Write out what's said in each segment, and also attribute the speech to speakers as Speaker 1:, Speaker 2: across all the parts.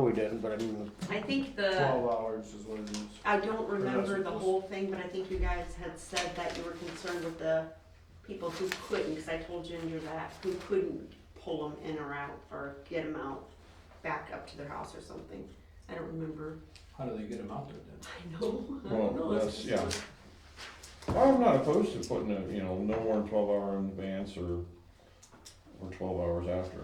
Speaker 1: We didn't, but I mean,
Speaker 2: I think the,
Speaker 3: Twelve hours is what it is.
Speaker 2: I don't
Speaker 3: Or
Speaker 2: remember
Speaker 3: that's
Speaker 2: the
Speaker 3: what-
Speaker 2: whole thing, but I think you guys had said that you were concerned with the people who couldn't, because I told Ginger that, who couldn't pull them in or out or get them out back up to their house or something. I don't remember.
Speaker 3: How do they get them out there
Speaker 2: I
Speaker 3: then?
Speaker 2: know, I
Speaker 4: Well,
Speaker 2: don't know. It's
Speaker 4: that's-
Speaker 2: just-
Speaker 4: yeah. I'm not opposed to putting a, you know, no more than twelve hour in advance or, or twelve hours after.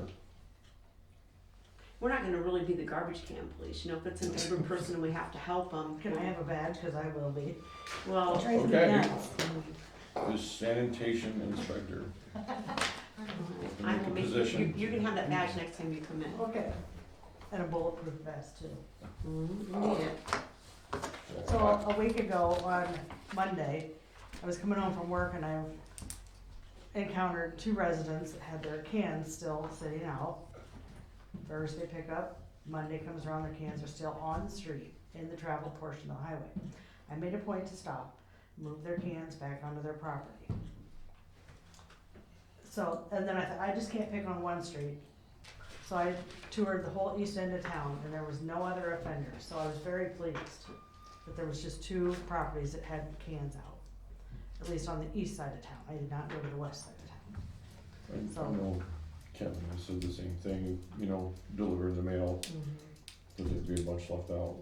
Speaker 2: We're not gonna really be the garbage can police, you know, if it's an older person and we have to help them.
Speaker 5: Can I have a badge, cause I will be.
Speaker 2: Well,
Speaker 5: Drives me
Speaker 4: Okay.
Speaker 5: nuts.
Speaker 4: The sanitation inspector.
Speaker 2: I will make, you,
Speaker 4: Position.
Speaker 2: you can have that badge next time you come in.
Speaker 5: Okay, and a bulletproof vest too.
Speaker 2: Mhm, we need it.
Speaker 5: So a week ago on Monday, I was coming home from work and I encountered two residents that had their cans still sitting out. Thursday pickup, Monday comes around, their cans are still on the street in the travel portion of the highway. I made a point to stop, move their cans back onto their property. So, and then I thought, I just can't pick on one street. So I toured the whole east end of town and there was no other offender, so I was very pleased that there was just two properties that had cans out, at least on the east side of town. I did not go to the west side of town.
Speaker 4: I I know Kevin has said the same thing, you know, delivering the mail,
Speaker 5: Mm-hmm.
Speaker 4: that there'd be a bunch left out.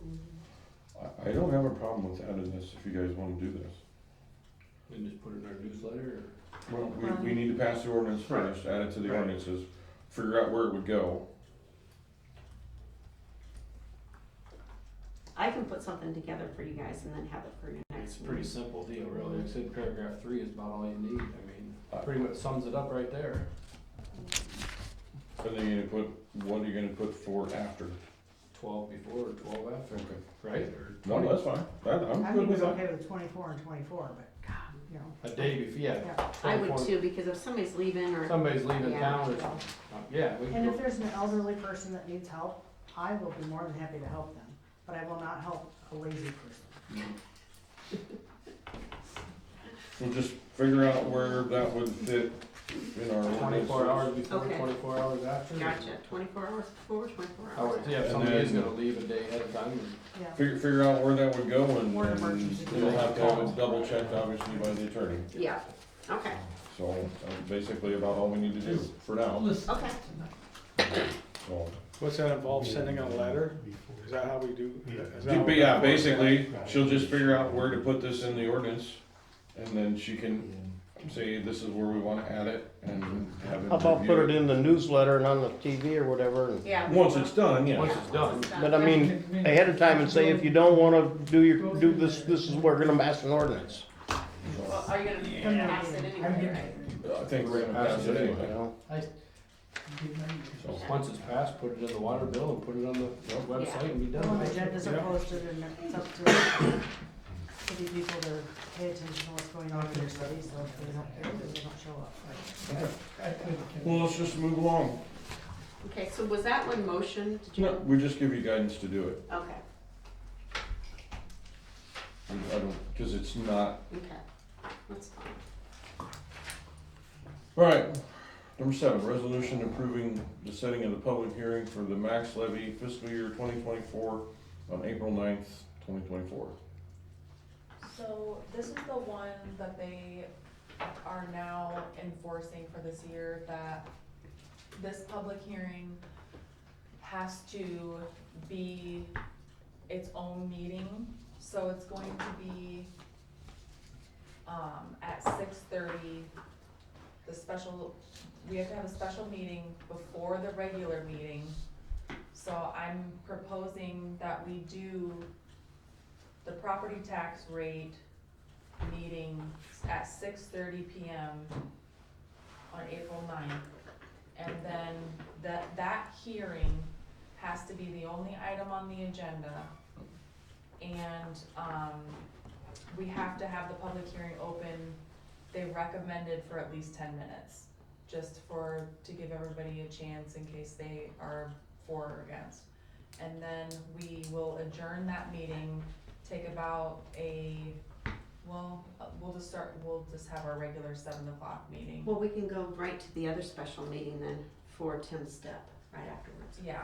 Speaker 2: Mm-hmm.
Speaker 4: I, I don't have a problem with adding this if you guys wanna do this.
Speaker 3: And just put it in our newsletter or?
Speaker 4: Well, we, we need to pass the ordinance
Speaker 3: Right.
Speaker 4: first, add it to the
Speaker 3: Right.
Speaker 4: ordinances, figure out where it would go.
Speaker 2: I can put something together for you guys and then have it for your
Speaker 3: It's
Speaker 2: next
Speaker 3: a pretty
Speaker 2: meeting.
Speaker 3: simple deal, really. Like I said, paragraph three is about all you need. I mean, pretty much sums it up right there.
Speaker 4: And then you're gonna put, what are you gonna put for after?
Speaker 3: Twelve before or twelve after,
Speaker 4: Okay.
Speaker 3: right? Or
Speaker 4: No,
Speaker 3: twenty,
Speaker 4: that's fine, that, I'm
Speaker 5: I
Speaker 4: good
Speaker 5: think
Speaker 4: with
Speaker 5: it's
Speaker 4: that.
Speaker 5: okay with twenty-four and twenty-four, but God, you know,
Speaker 3: a day before, yeah.
Speaker 5: yeah.
Speaker 2: I would
Speaker 3: 24.
Speaker 2: too, because if somebody's leaving or,
Speaker 3: Somebody's leaving
Speaker 2: Yeah.
Speaker 3: town or something. Uh, Yeah, we can
Speaker 5: And if
Speaker 3: go,
Speaker 5: there's an elderly person that needs help, I will be more than happy to help them, but I will not help a lazy person.
Speaker 4: We'll just figure out where that would fit in our ordinances.
Speaker 3: twenty-four hours before,
Speaker 2: Okay.
Speaker 3: twenty-four hours after. or-
Speaker 2: gotcha, twenty-four hours before, twenty-four
Speaker 3: Oh,
Speaker 2: hours.
Speaker 3: yeah,
Speaker 4: And
Speaker 3: if somebody is
Speaker 4: then-
Speaker 3: gonna leave a day ahead of time,
Speaker 5: Yeah,
Speaker 4: Figure, figure out where that would go and,
Speaker 5: Or
Speaker 4: and
Speaker 5: emergency.
Speaker 4: you'll have to have it double checked obviously by the attorney.
Speaker 2: Yeah, okay,
Speaker 4: So, uh, basically about all we need to do for now,
Speaker 2: okay.
Speaker 4: so.
Speaker 6: What's that involve, sending a letter? Is that how we do? is that how
Speaker 4: But
Speaker 6: we-
Speaker 4: yeah, basically, she'll just figure out where to put this in the ordinance and then she can say this is where we wanna add it and have it
Speaker 1: how about put it
Speaker 4: reviewed.
Speaker 1: in the newsletter and on the TV or whatever? and-
Speaker 2: Yeah.
Speaker 4: Once it's done,
Speaker 3: once
Speaker 4: yeah.
Speaker 3: it's done,
Speaker 1: But I mean, ahead of time and say, if you don't wanna do your, do this, this is, we're gonna pass an ordinance,
Speaker 2: Well, are you gonna pass it anyway, right?
Speaker 4: I think we're gonna pass it
Speaker 1: you
Speaker 4: anyway,
Speaker 1: know?
Speaker 4: so.
Speaker 3: once it's passed, put it in the water bill and put it on the website and be
Speaker 5: Well,
Speaker 3: done.
Speaker 5: the agendas are
Speaker 3: Yeah.
Speaker 5: posted and it's up to city people to pay attention to what's going on in their city, so if they don't, if they don't show up.
Speaker 4: Well, let's just move along.
Speaker 2: Okay, so was that one motion, did
Speaker 4: No,
Speaker 2: you,
Speaker 4: we just give you guidance to do it.
Speaker 2: okay,
Speaker 4: I don't, cause it's not,
Speaker 2: okay, that's fine.
Speaker 4: alright. Number seven, resolution approving the setting of the public hearing for the max levy fiscal year twenty twenty-four on April 9th, twenty twenty-four.
Speaker 7: So this is the one that they are now enforcing for this year, that this public hearing has to be its own meeting, so it's going to be um, at six thirty, the special, we have to have a special meeting before the regular meeting. So I'm proposing that we do the property tax rate meeting at six thirty P M on April 9th, And then that, that hearing has to be the only item on the agenda. And, um, we have to have the public hearing open, they recommended for at least ten minutes, just for, to give everybody a chance in case they are for or against. And then we will adjourn that meeting take about a, well, uh, we'll just start, we'll just have our regular seven o'clock meeting.
Speaker 2: Well, we can go right to the other special meeting then for Tim's step, right afterwards.
Speaker 7: Yeah,